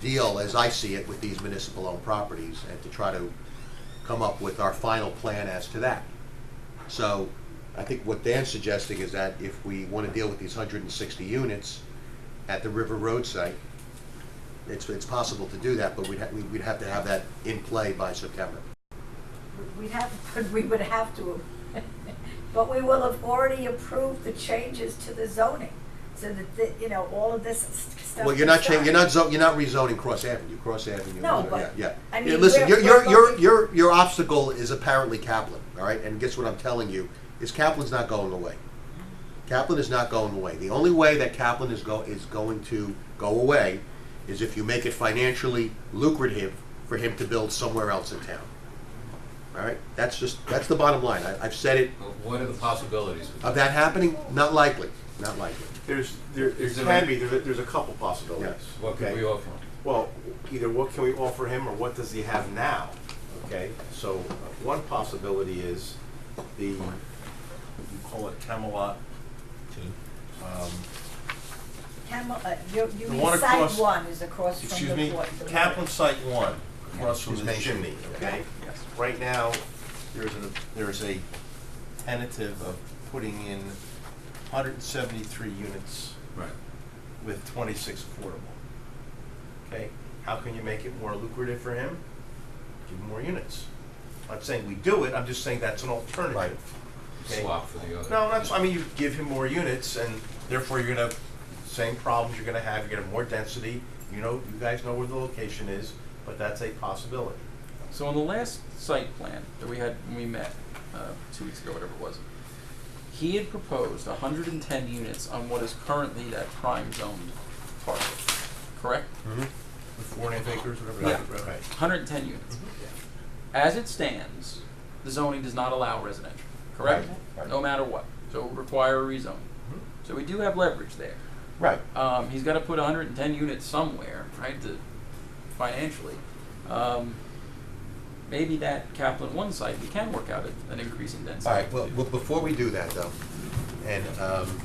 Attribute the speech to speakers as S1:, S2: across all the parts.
S1: deal, as I see it, with these municipal-owned properties, and to try to come up with our final plan as to that. So, I think what Dan's suggesting is that if we want to deal with these hundred and sixty units at the River Road site, it's, it's possible to do that, but we'd, ha- we'd have to have that in play by September.
S2: We'd have, we would have to, but we will have already approved the changes to the zoning, so that, the- you know, all of this stuff.
S1: Well, you're not
S2: is
S1: changing,
S2: done.
S1: you're not, zo- you're not rezoning Cross Avenue, Cross Avenue.
S2: No,
S1: yeah,
S2: but,
S1: Yeah,
S2: I
S1: yeah.
S2: mean,
S1: Listen, your,
S2: we're-
S1: your,
S2: we're
S1: your,
S2: looking-
S1: your, your obstacle is apparently Kaplan, all right? And guess what I'm telling you, is Kaplan's not going away. Kaplan is not going away. The only way that Kaplan is go, is going to go away is if you make it financially lucrative for him to build somewhere else in town. All right? That's just, that's the bottom line. I, I've said it.
S3: Well, What are the possibilities with
S1: Of
S3: that?
S1: that happening, not likely, not likely.
S4: There's, there, there
S3: Is there
S4: can
S3: any-
S4: be, there, there's a couple possibilities.
S1: Yes.
S3: What could
S4: okay?
S3: we offer?
S4: Well, either what can we offer him or what does he have now, okay? So uh, one possibility is the, you call it Camelot, um,
S2: Camel, uh, you, you
S4: The
S2: mean
S4: one
S2: site
S4: across-
S2: one is across from
S4: excuse
S2: the
S4: me,
S2: port.
S4: Kaplan Site One, across from
S1: He's
S4: the
S1: mentioned.
S4: chimney, okay? Right now, there's a, there's a tentative of putting in hundred and seventy-three units
S3: Right.
S4: with 26 affordable. Okay, how can you make it more lucrative for him? Give him more units. I'm not saying we do it, I'm just saying that's an alternative. Okay.
S3: Swap for the other.
S4: No, that's, I mean, you give him more units and therefore you're gonna, same problems you're gonna have, you're gonna have more density. You know, you guys know where the location is, but that's a possibility.
S5: So on the last site plan that we had when we met uh, two weeks ago, whatever it was, he had proposed 110 units on what is currently that prime zoned parcel, correct?
S4: With four and a half acres, whatever.
S5: Yeah.
S4: Right, right.
S5: 110 units.
S4: Mm-hmm.
S5: As it stands, the zoning does not allow residential, correct?
S4: Right, right.
S5: No matter what. So it would require a rezone.
S4: Mhm.
S5: So we do have leverage there.
S4: Right.
S5: Um, he's got to put 110 units somewhere, right? To financially, um, maybe that Kaplan one site we can work out a- an increase in density.
S1: All right, well, well, before we do that, though, and um,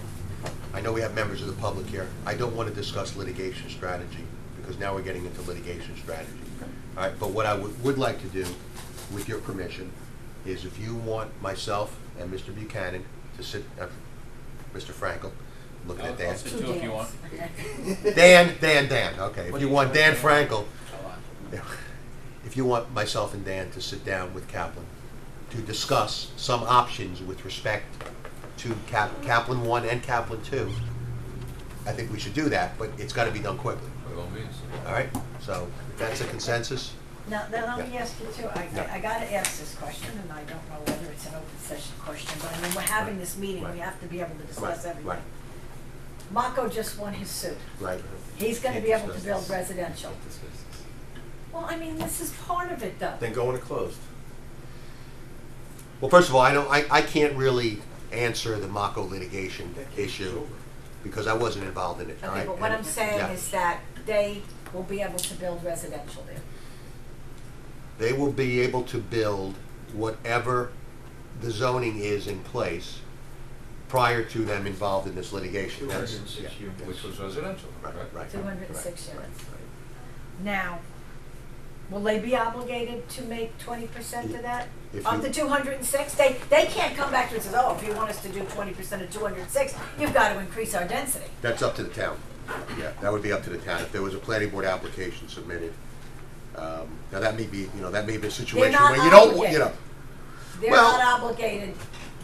S1: I know we have members of the public here, I don't want to discuss litigation strategy, because now we're getting into litigation strategy. All right, but what I would, would like to do, with your permission, is if you want myself and Mr. Buchanan to sit, uh, Mr. Frankel, I'm looking
S3: I'll,
S1: at Dan.
S3: I'll sit too if you want.
S1: Dan, Dan, Dan, okay,
S5: What
S1: if
S5: do
S1: you
S5: you
S1: want
S5: call it?
S1: Dan Frankel, if you want myself and Dan to sit down with Kaplan to discuss some options with respect to Cap- Kaplan one and Kaplan two, I think we should do that, but it's gotta be done quickly,
S3: By all means.
S1: all right? So, if that's a consensus,
S2: Now, now let me
S1: Yeah.
S2: ask you too, I,
S1: Yeah.
S2: I gotta ask this question, and I don't know whether it's an open session question, but I mean, we're having this meeting, we
S1: Right.
S2: have to be able to
S1: right,
S2: discuss
S1: right,
S2: everything. Mako just won his suit.
S1: right.
S2: He's gonna be
S1: Can't
S2: able to
S1: discuss
S2: build residential. Well, I mean, this is part of it though.
S4: Then go into closed.
S1: Well, first of all, I don't, I, I can't really answer the Mako litigation issue, because I wasn't involved in it, all right?
S2: Okay, but what
S1: And-
S2: I'm saying
S1: yeah.
S2: is that they will be able to build residential there.
S1: they will be able to build whatever the zoning is in place prior to them involved in this litigation. That's- yeah, yes.
S3: Which was residential,
S1: Right,
S3: right?
S1: right.
S2: Two hundred and six
S1: right,
S2: units.
S1: right.
S2: Now, will they be obligated to make twenty percent of that?
S1: If
S2: Of
S1: you-
S2: the two hundred and six, they, they can't come back to us and say, oh, if you want us to do twenty percent of two hundred and six, you've got to increase our density.
S1: That's up to the town. Yeah, that would be up to the town. If there was a planning board application submitted, um, now that may be, you know, that may be a situation
S2: not
S1: where you don't, you
S2: obligated.
S1: know,
S2: They're
S1: Well-
S2: not obligated,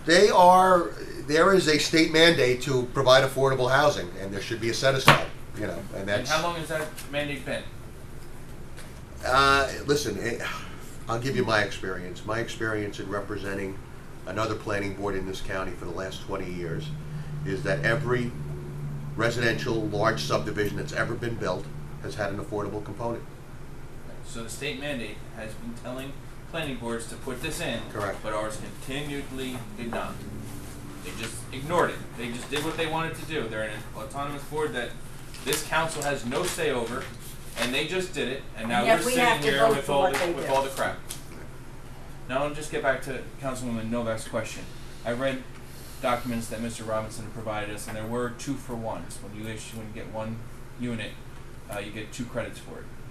S1: they are, there is a state mandate to provide affordable housing, and there should be a set aside, you know, and
S6: And
S1: that's.
S6: how long has that mandate been?
S1: Uh, listen, it, I'll give you my experience. My experience in representing another planning board in this county for the last 20 years is that every residential large subdivision that's ever been built has had an affordable component.
S6: So the state mandate has been telling planning boards to put this in.
S1: Correct.
S6: But ours continually did not. They just ignored it. They just did what they wanted to do. They're an autonomous board that this council has no say over, and they just did it, and now
S2: And yet
S6: we're
S2: we
S6: sitting
S2: have to
S6: here
S2: vote
S6: with
S2: for
S6: all
S2: what
S6: the
S2: they
S6: with
S2: do.
S6: all the crap. Now I'll just get back to Councilwoman Novak's question. I read documents that Mr. Robinson provided us, and there were two for ones. When you issue, when you get one unit, uh, you get two credits for it.